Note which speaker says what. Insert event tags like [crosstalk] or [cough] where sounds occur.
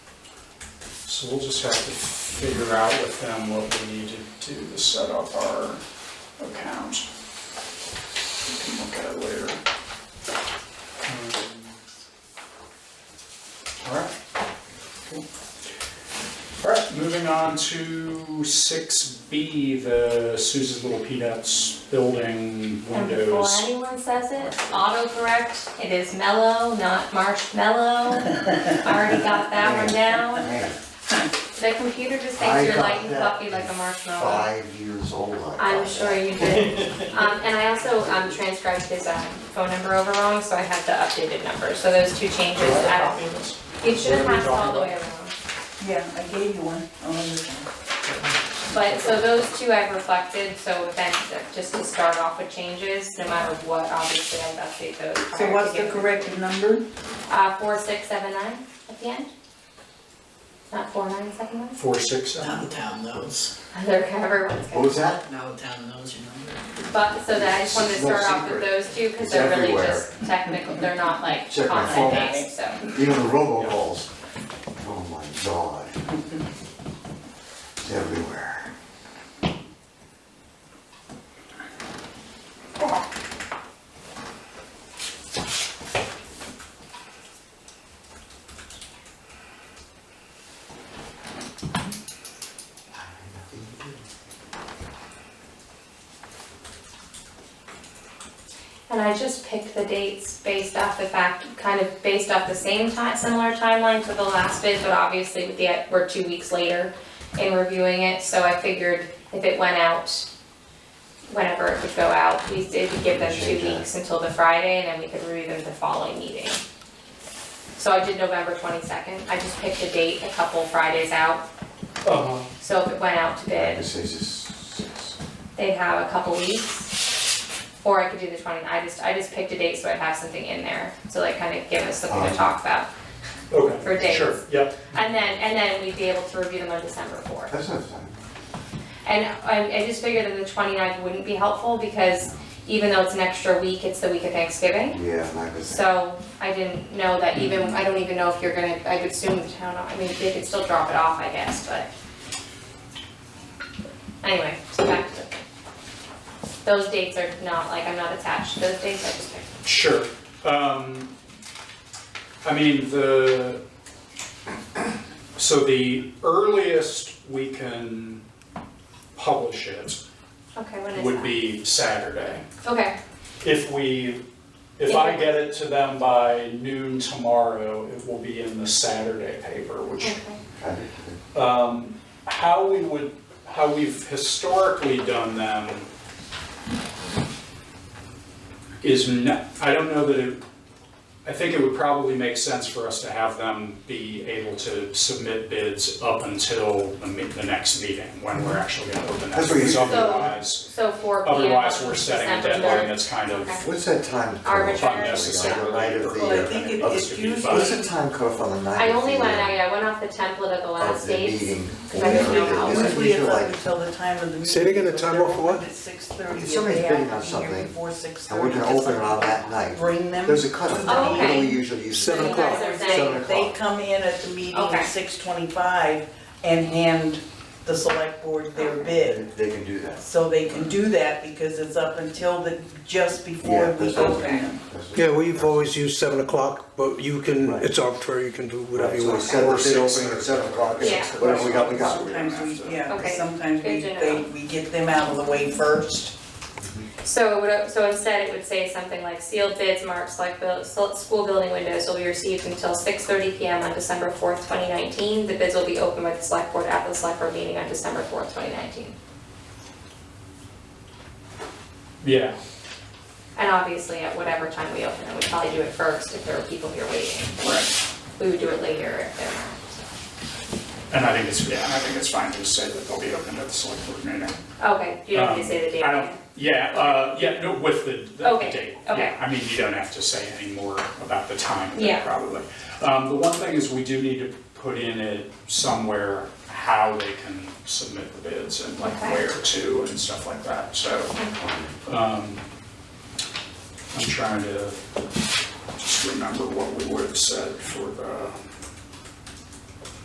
Speaker 1: So we'll just have to figure out with them what we need to do to set up our account. We can look at it later. Um, All right. Cool. All right, moving on to six B, the Sousa's Little Peanuts building
Speaker 2: And before
Speaker 1: windows.
Speaker 2: anyone says it, autocorrect, it is mellow, not
Speaker 3: [laughs]
Speaker 2: marshmallow. Already got that one down.
Speaker 3: Man,
Speaker 2: The computer just
Speaker 3: I
Speaker 2: thinks you're
Speaker 3: got
Speaker 2: light and
Speaker 3: that
Speaker 2: fluffy like a marshmallow.
Speaker 3: Five years old, I got
Speaker 2: I'm
Speaker 3: that.
Speaker 2: sure you did. Um, and I also, um, transcribed his, um, phone number over wrong, so I have the updated number, so those two changes, I, it should have passed all the way around.
Speaker 4: Yeah, I gave you one. Oh, this one.
Speaker 2: But, so those two I've reflected, so then, just to start off with changes, no matter what, obviously I'd update those prior
Speaker 4: So
Speaker 2: to
Speaker 4: what's the
Speaker 2: getting-
Speaker 4: correct number?
Speaker 2: Uh, four, six, seven, nine at the end? Not four, nine, seven, nine? [laughs]
Speaker 1: Four, six, seven.
Speaker 5: Now the town knows,
Speaker 2: They're everyone's
Speaker 3: What
Speaker 2: good.
Speaker 3: was
Speaker 2: [laughs]
Speaker 3: that?
Speaker 5: now the town knows your number.
Speaker 2: But, so that, I just wanted to
Speaker 3: It's no
Speaker 2: start off with
Speaker 3: secret.
Speaker 2: those two, cause
Speaker 3: It's
Speaker 2: they're really
Speaker 3: everywhere.
Speaker 2: just technical, they're not like
Speaker 3: Check my
Speaker 2: content
Speaker 3: phone.
Speaker 2: based, so.
Speaker 3: Even the robocalls. Oh my god. It's everywhere.
Speaker 2: And I just picked the dates based off the fact, kind of based off the same time, similar timeline to the last bid, but obviously with the, we're two weeks later in reviewing it, so I figured if it went out, whenever it would go out, we did give them two
Speaker 3: Change that.
Speaker 2: weeks until the Friday, and then we could review them the following meeting. So I did November twenty-second, I just picked a date a couple Fridays out,
Speaker 1: Uh-huh.
Speaker 2: so if it went out to bid,
Speaker 3: This is just.
Speaker 2: they have a couple weeks. Or I could do the twenty, I just, I just picked a date so I'd have something in there, so like kind of give us something to
Speaker 3: Um.
Speaker 2: talk about.
Speaker 1: Okay.
Speaker 2: For dates.
Speaker 1: Sure, yep.
Speaker 2: And then, and then we'd be able to review them on December fourth.
Speaker 3: That's not time.
Speaker 2: And I, I just figured that the 29th wouldn't be helpful because even though it's an extra week, it's the week of Thanksgiving.
Speaker 3: Yeah, and I was.
Speaker 2: So I didn't know that even, I don't even know if you're gonna, I would assume the town, I mean, they could still drop it off, I guess, but. Anyway, so back to. Those dates are not, like, I'm not attached to those dates, I just picked.
Speaker 1: Sure. Um, I mean, the, so the earliest we can publish it
Speaker 2: Okay, when is
Speaker 1: would
Speaker 2: that?
Speaker 1: be Saturday.
Speaker 2: Okay,
Speaker 1: If we, if I get it to them by noon tomorrow, it will be in the Saturday paper, which
Speaker 2: okay.
Speaker 3: I did-
Speaker 1: um, how we would, how we've historically done them is not, I don't know that it, I think it would probably make sense for us to have them be able to submit bids up until the, me- the next meeting, when we're actually gonna open that,
Speaker 3: That's what you-
Speaker 1: because otherwise,
Speaker 2: So four P M.
Speaker 1: otherwise we're setting a
Speaker 2: December
Speaker 1: deadline that's kind of,
Speaker 2: Okay.
Speaker 3: What's that time? cutoff?
Speaker 2: Arbitrary.
Speaker 1: Unnecessary.
Speaker 3: The night of the,
Speaker 4: Well, I
Speaker 3: uh,
Speaker 4: think it-
Speaker 1: Others
Speaker 4: it's
Speaker 1: could be
Speaker 4: usually-
Speaker 1: fine.
Speaker 3: What's the time cutoff on the night?
Speaker 2: I
Speaker 3: of
Speaker 2: only
Speaker 3: the,
Speaker 2: went,
Speaker 3: uh,
Speaker 2: I I went off the template of the last
Speaker 3: Of the
Speaker 2: dates.
Speaker 3: meeting.
Speaker 2: Cause I didn't know how. it
Speaker 3: Yeah.
Speaker 2: worked.
Speaker 4: Usually it's up until the time of the meeting.
Speaker 6: Say it again, the time off for what?
Speaker 4: It's six thirty.
Speaker 3: If somebody's bidding on something,
Speaker 4: Before six
Speaker 3: And
Speaker 4: thirty.
Speaker 3: we're gonna open it on that night.
Speaker 4: Bring them.
Speaker 3: There's a cutoff,
Speaker 2: Oh,
Speaker 3: time. what do we
Speaker 2: okay.
Speaker 3: usually use?
Speaker 6: Seven
Speaker 2: You guys are saying-
Speaker 3: Seven
Speaker 4: They
Speaker 3: o'clock.
Speaker 4: come in at the meeting
Speaker 2: Okay.
Speaker 4: at six twenty-five and hand the select board their
Speaker 3: They
Speaker 4: bid.
Speaker 3: they can do that.
Speaker 4: So they can do that because it's up until the, just before
Speaker 3: Yeah,
Speaker 4: we
Speaker 3: that's
Speaker 4: open
Speaker 3: okay.
Speaker 4: them.
Speaker 3: That's-
Speaker 6: Yeah, we've always used seven o'clock, but you can,
Speaker 3: Right.
Speaker 6: it's arbitrary, you can do whatever
Speaker 3: Right,
Speaker 6: you
Speaker 3: So we
Speaker 6: want.
Speaker 3: set
Speaker 1: Or
Speaker 3: the bid
Speaker 1: six
Speaker 3: opening
Speaker 1: or-
Speaker 3: at seven o'clock.
Speaker 2: Yeah.
Speaker 3: Whatever we got, we got.
Speaker 4: Sometimes we, yeah, 'cause
Speaker 2: Okay.
Speaker 4: sometimes we,
Speaker 2: Good to
Speaker 4: they,
Speaker 2: know.
Speaker 4: we get them out of the way first.
Speaker 2: So it would, so instead it would say something like sealed bids marked select buil- sol- school building windows will be received until six thirty P M on December fourth, twenty nineteen. The bids will be opened by the select board at the select board meeting on December fourth, twenty nineteen.
Speaker 1: yeah,
Speaker 2: And obviously, at whatever time we open it, we'd probably do it first if there were people here waiting. Or we would do it later if there weren't.
Speaker 1: and I think it's, yeah, and I think it's fine to just say that they'll be open at the select board meeting.
Speaker 2: Okay, you don't have to say the date.
Speaker 1: Um, I don't, yeah, uh, yeah, no, with the, the
Speaker 2: Okay,
Speaker 1: date,
Speaker 2: okay.
Speaker 1: yeah, I mean, you don't have to say any more about the time, of it,
Speaker 2: Yeah.
Speaker 1: probably. Um, the one thing is we do need to put in it somewhere how they can submit the bids and like
Speaker 2: Okay.
Speaker 1: where to and stuff like that, so. Um, I'm trying to just remember what we would have said for the